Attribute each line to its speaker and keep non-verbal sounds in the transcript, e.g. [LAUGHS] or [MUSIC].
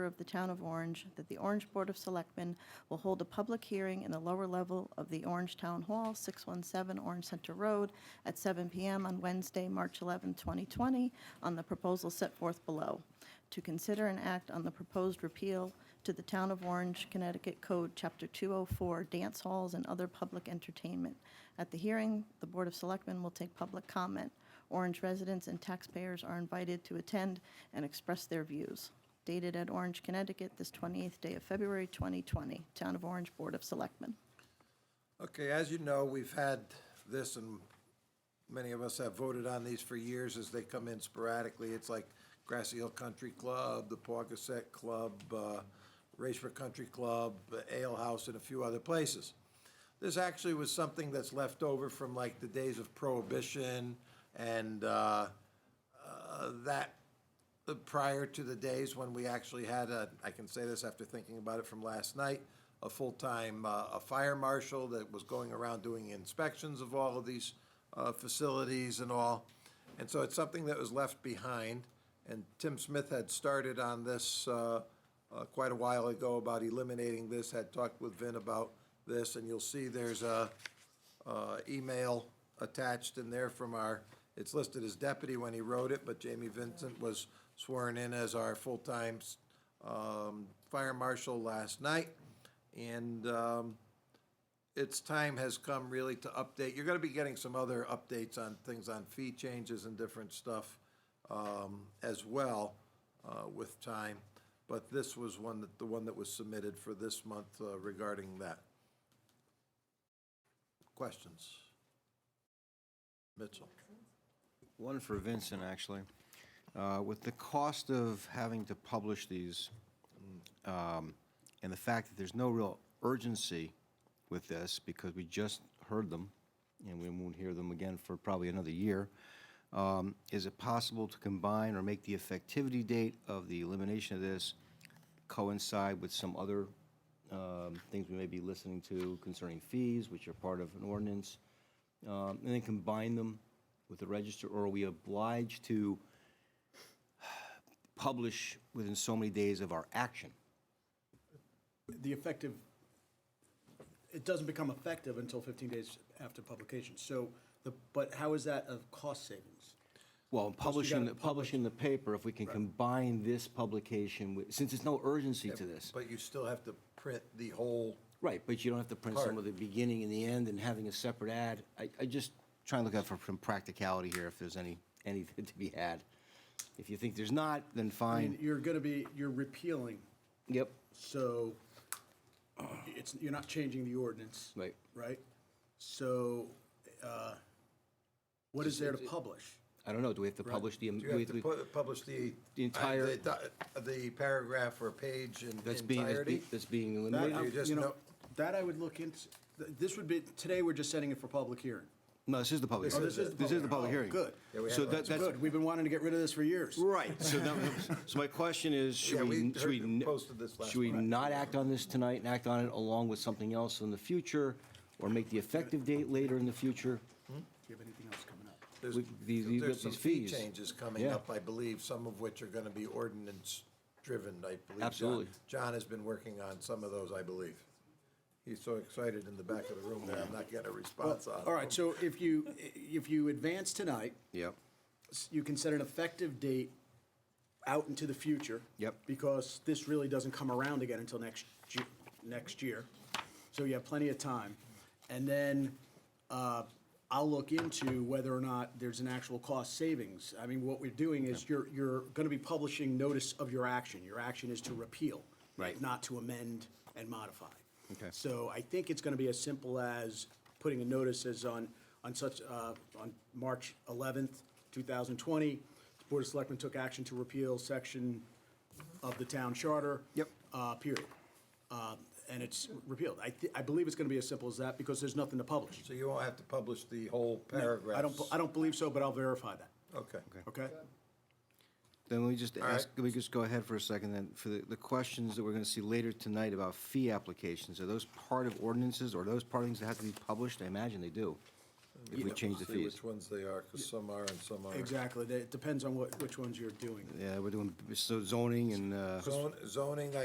Speaker 1: of the Town of Orange that the Orange Board of Selectmen will hold a public hearing in the lower level of the Orange Town Hall, 617 Orange Center Road, at 7 PM on Wednesday, March 11, 2020, on the proposal set forth below, to consider and act on the proposed repeal to the Town of Orange, Connecticut Code, Chapter 204, dance halls and other public entertainment. At the hearing, the Board of Selectmen will take public comment. Orange residents and taxpayers are invited to attend and express their views dated at Orange, Connecticut, this 28th day of February 2020, Town of Orange Board of Selectmen.
Speaker 2: Okay, as you know, we've had this, and many of us have voted on these for years as they come in sporadically. It's like Grassy Hill Country Club, the Pawcaset Club, uh, Racebrook Country Club, Ale House, and a few other places. This actually was something that's left over from like the days of Prohibition and uh, uh, that uh, prior to the days when we actually had a, I can say this after thinking about it from last night, a full-time, uh, a fire marshal that was going around doing inspections of all of these, uh, facilities and all. And so it's something that was left behind, and Tim Smith had started on this, uh, uh, quite a while ago about eliminating this, had talked with Vin about this, and you'll see there's a, uh, email attached in there from our, it's listed as deputy when he wrote it, but Jamie Vincent was sworn in as our full-time um, fire marshal last night. And um, its time has come really to update. You're going to be getting some other updates on things on fee changes and different stuff um, as well uh, with time. But this was one that, the one that was submitted for this month uh, regarding that. Questions? Mitchell?
Speaker 3: One for Vincent, actually. Uh, With the cost of having to publish these, um, and the fact that there's no real urgency with this, because we just heard them, and we won't hear them again for probably another year, um, is it possible to combine or make the effectivity date of the elimination of this coincide with some other um, things we may be listening to concerning fees, which are part of an ordinance? um, and then combine them with the register, or are we obliged to publish within so many days of our action?
Speaker 4: the effective, it doesn't become effective until 15 days after publication. So, the, but how is that of cost savings?
Speaker 3: Well, in publishing,
Speaker 4: gotta
Speaker 3: publishing the paper, if we can combine this publication with, since there's no urgency to this.
Speaker 2: But you still have to print the whole,
Speaker 3: Right, but you don't have to print some
Speaker 2: Part.
Speaker 3: of the beginning and the end and having a separate ad. I, I just try and look out for some practicality here, if there's any, anything [LAUGHS] to be had. If you think there's not, then
Speaker 4: I mean,
Speaker 3: fine.
Speaker 4: you're going to be, you're repealing,
Speaker 3: Yep,
Speaker 4: so it's, you're not changing the ordinance.
Speaker 3: Right.
Speaker 4: Right? So, uh, what is there to publish?
Speaker 3: I don't know, do we have to publish the?
Speaker 2: you have
Speaker 3: we-
Speaker 2: to
Speaker 3: we-
Speaker 2: pu- publish the. uh,
Speaker 3: The entire-
Speaker 2: The the paragraph or page in
Speaker 3: That's being, that's be-
Speaker 2: entirety?
Speaker 3: that's being
Speaker 4: That,
Speaker 3: eliminated?
Speaker 2: you
Speaker 4: I'm-
Speaker 2: just
Speaker 4: you know,
Speaker 2: know-
Speaker 4: that I would look into, th- this would be, today we're just setting it for public hearing.
Speaker 3: No, this is the public.
Speaker 4: Oh,
Speaker 3: hearing.
Speaker 4: this is the public- oh,
Speaker 3: hearing.
Speaker 4: good.
Speaker 2: Yeah, we
Speaker 3: So
Speaker 2: have-
Speaker 3: that, that's,
Speaker 4: Good, we've been wanting to get rid of this for years.
Speaker 3: right,
Speaker 2: [LAUGHS]
Speaker 3: so that, so my question is,
Speaker 2: Yeah,
Speaker 3: should
Speaker 2: we
Speaker 3: we, should we?
Speaker 2: heard you
Speaker 3: n-
Speaker 2: posted this last
Speaker 3: Should we
Speaker 2: night.
Speaker 3: not act on this tonight and act on it along with something else in the future? Or make the effective date later in the future?
Speaker 4: Do you have anything else coming up?
Speaker 2: There's
Speaker 3: with the- the-
Speaker 2: there's some
Speaker 3: these
Speaker 2: fee
Speaker 3: fees.
Speaker 2: changes coming
Speaker 3: Yeah.
Speaker 2: up, I believe, some of which are going to be ordinance-driven, I believe. John-
Speaker 3: Absolutely.
Speaker 2: John has been working on some of those, I believe. He's so excited in the back of the room that I'm not getting a response on.
Speaker 4: All right,
Speaker 2: him.
Speaker 4: so if you, if you advance tonight,
Speaker 3: Yep.
Speaker 4: you can set an effective date out into the future.
Speaker 3: Yep.
Speaker 4: Because this really doesn't come around again until next, Ju- next year. So you have plenty of time. And then uh, I'll look into whether or not there's an actual cost savings. I mean, what we're doing is you're, you're going to be publishing notice of your action. Your action is to repeal.
Speaker 3: Right.
Speaker 4: Not to amend and modify.
Speaker 3: Okay.
Speaker 4: So I think it's going to be as simple as putting a notice as on, on such, uh, on March 11th, 2020, the Board of Selectmen took action to repeal section of the town charter.
Speaker 3: Yep.
Speaker 4: uh, Period. Um, And it's repealed. I, thi- I believe it's going to be as simple as that because there's nothing to publish.
Speaker 2: So you won't have to publish the whole paragraph?
Speaker 4: I don't, I don't believe so, but I'll verify that,
Speaker 2: Okay.
Speaker 4: okay?
Speaker 3: Then we just
Speaker 2: All right.
Speaker 3: ask, can we just go ahead for a second then, for the, the questions that we're gonna see later tonight about fee applications, are those part of ordinances, or are those part of things that have to be published? I imagine they do. if we change the
Speaker 2: See
Speaker 3: fees.
Speaker 2: which ones they are, because some are and some aren't.
Speaker 4: Exactly, That- it depends on what, which ones you're doing.
Speaker 3: Yeah, we're doing so zoning and, uh.
Speaker 2: Zon- Zoning,